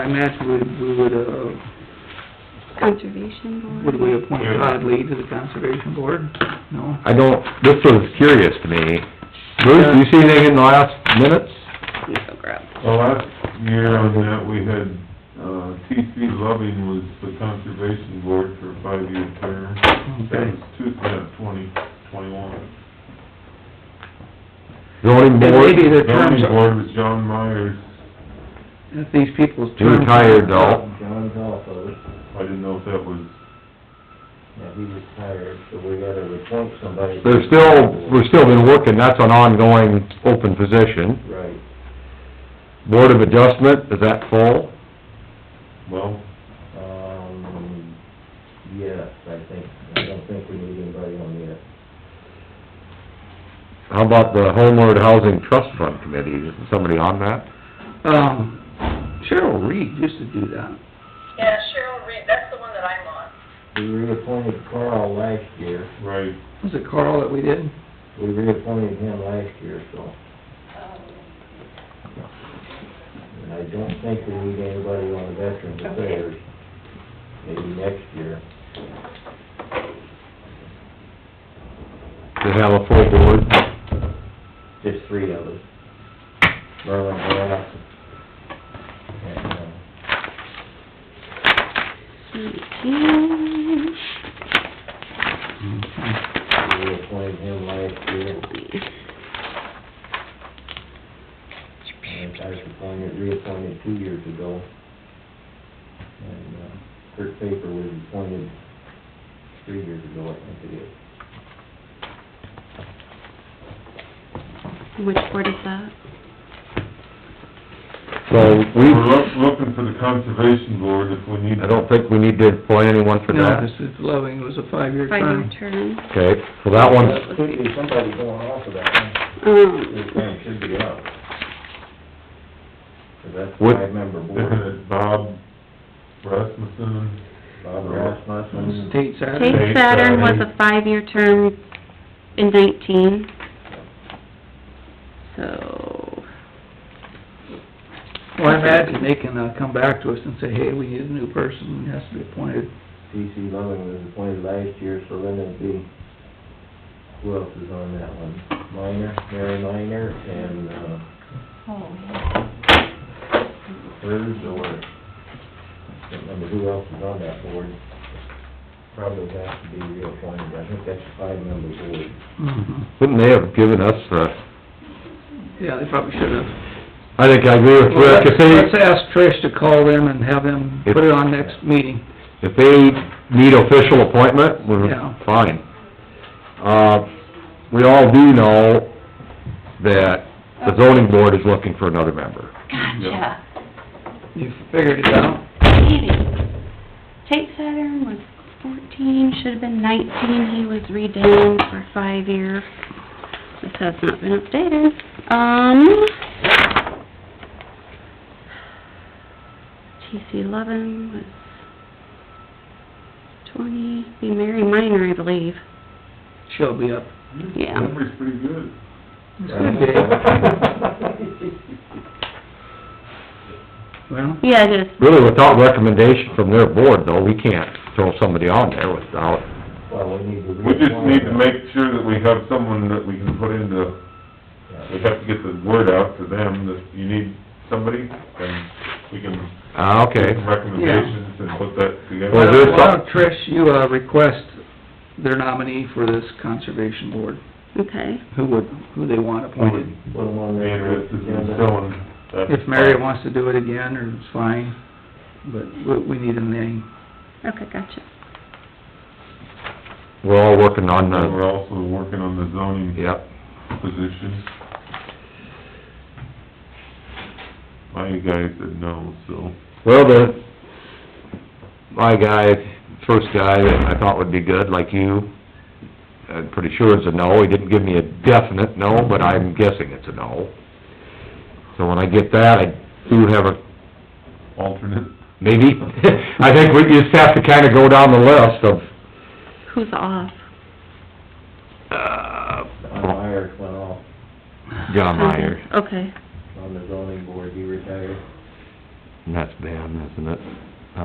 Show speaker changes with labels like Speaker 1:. Speaker 1: I imagine we, we would, uh,
Speaker 2: Conservation Board.
Speaker 1: would we appoint Todd Lee to the conservation board? No?
Speaker 3: I don't, this was curious to me. Bruce, do you see anything in the last minutes?
Speaker 2: Let me go grab.
Speaker 4: Well, last year on that, we had, uh, T.C. Loving was the conservation board for a five-year term. That
Speaker 1: Okay.
Speaker 4: was two, uh, twenty, twenty-one.
Speaker 3: Zoning
Speaker 1: And
Speaker 3: board?
Speaker 1: maybe the terms
Speaker 4: Zoning
Speaker 1: are,
Speaker 4: board was John Myers.
Speaker 1: if these people's
Speaker 3: You're
Speaker 1: terms...
Speaker 3: tired, though.
Speaker 5: John's off of it,
Speaker 4: I didn't know if that was,
Speaker 5: now he retired, so we gotta appoint somebody.
Speaker 3: There's still, we're still been working, that's an ongoing open position.
Speaker 5: Right,
Speaker 3: Board of Adjustment, is that full?
Speaker 4: well,
Speaker 5: um, yes, I think, I don't think we need anybody on yet.
Speaker 3: How about the Homeward Housing Trust Fund Committee, is somebody on that?
Speaker 1: Um, Cheryl Reed used to do that.
Speaker 6: Yeah, Cheryl Reed, that's the one that I'm on.
Speaker 5: We reappointed Carl last year,
Speaker 4: right,
Speaker 1: Was it Carl that we did?
Speaker 5: we reappointed him last year, so, and I don't think we need anybody on the Veterans Affairs, maybe next year.
Speaker 3: They have a full board?
Speaker 5: just three of us. Merlin Glass and, uh,
Speaker 2: Nineteen.
Speaker 3: Mm-hmm.
Speaker 5: we appointed him last year. And I was appointed, reappointed two years ago. And, uh, Kurt Paper was appointed three years ago, I think it is.
Speaker 2: Which board is that?
Speaker 3: So we,
Speaker 4: we're loo- looking for the conservation board if we need.
Speaker 3: I don't think we need to appoint anyone for
Speaker 1: No,
Speaker 3: that.
Speaker 1: this is Loving, it was a five-year
Speaker 2: Five-year
Speaker 1: term.
Speaker 2: term.
Speaker 3: Okay, so that one's
Speaker 5: There Could be somebody going off of that one. This
Speaker 2: Um,
Speaker 5: term should be up. 'Cause that's
Speaker 3: What-
Speaker 5: what I remember,
Speaker 4: Looking
Speaker 5: board,
Speaker 4: at Bob Rasmussen,
Speaker 5: Bob
Speaker 3: Mm.
Speaker 5: Rasmussen.
Speaker 1: State Saturday.
Speaker 2: Tate
Speaker 4: Tate
Speaker 2: Saturn was
Speaker 4: Saturn.
Speaker 2: a five-year term in nineteen. So,
Speaker 1: Well, I imagine they can, uh, come back to us and say, hey, we need a new person, it has to be appointed.
Speaker 5: P.C. Loving was appointed last year, so then it'd be, who else is on that one? Minor, Mary Minor, and, uh... Hers, or, I can't remember who else is on that board. Probably has to be reappointed, I think that's a five-member board.
Speaker 1: Mhm.
Speaker 3: Wouldn't they have given us the,
Speaker 1: Yeah, they probably should have.
Speaker 3: I think I agree with Rick, if
Speaker 1: Let's
Speaker 3: they,
Speaker 1: ask Trish to call them and have them put it on next meeting.
Speaker 3: if they need official appointment, we're
Speaker 1: Yeah.
Speaker 3: fine. Uh, we all do know that the zoning board is looking for another member.
Speaker 2: gotcha.
Speaker 1: You figured it out?
Speaker 2: Maybe. Tate Saturn was fourteen, should've been nineteen, he was redone for five-year. This has not been updated. Um... TC eleven was twenty, be Mary Minor, I believe,
Speaker 1: She'll be up.
Speaker 2: yeah.
Speaker 4: memory's pretty good.
Speaker 1: Well,
Speaker 2: Yeah, it is.
Speaker 3: Really, without recommendation from their board, though, we can't throw somebody on there without,
Speaker 5: Well, we need to reappoint...
Speaker 4: We just need to make sure that we have someone that we can put into
Speaker 5: Yeah.
Speaker 4: we have to get the word out to them that you need somebody, and we can
Speaker 3: ah,
Speaker 4: make
Speaker 3: okay.
Speaker 4: some recommendations and put that together.
Speaker 3: Well,
Speaker 1: why
Speaker 3: there's
Speaker 1: don't- why
Speaker 3: some-
Speaker 1: don't, Trish, you, uh, request their nominee for this conservation board,
Speaker 2: Okay.
Speaker 1: who would, who they want appointed.
Speaker 5: Put them on
Speaker 4: Be
Speaker 5: there.
Speaker 4: interested in filling that uh,
Speaker 1: If Mary
Speaker 4: spot.
Speaker 1: wants to do it again, or it's fine, but we, we need a name.
Speaker 2: Okay, gotcha.
Speaker 3: We're all working on
Speaker 4: And We're
Speaker 3: the,
Speaker 4: also working on the zoning
Speaker 3: yep.
Speaker 4: position. My guy said no, so,
Speaker 3: Well, the, my guy, first guy that I thought would be good, like you, I'm pretty sure it's a no. He didn't give me a definite no, but I'm guessing it's a no. So when I get that, I do have a,
Speaker 4: alternate,
Speaker 3: maybe, I think we just have to kinda go down the list of,
Speaker 2: Who's off?
Speaker 3: uh,
Speaker 5: John Myers went off
Speaker 3: John Meyer.
Speaker 2: Okay.
Speaker 5: on the zoning board, he retired.
Speaker 3: And that's Ben, isn't it?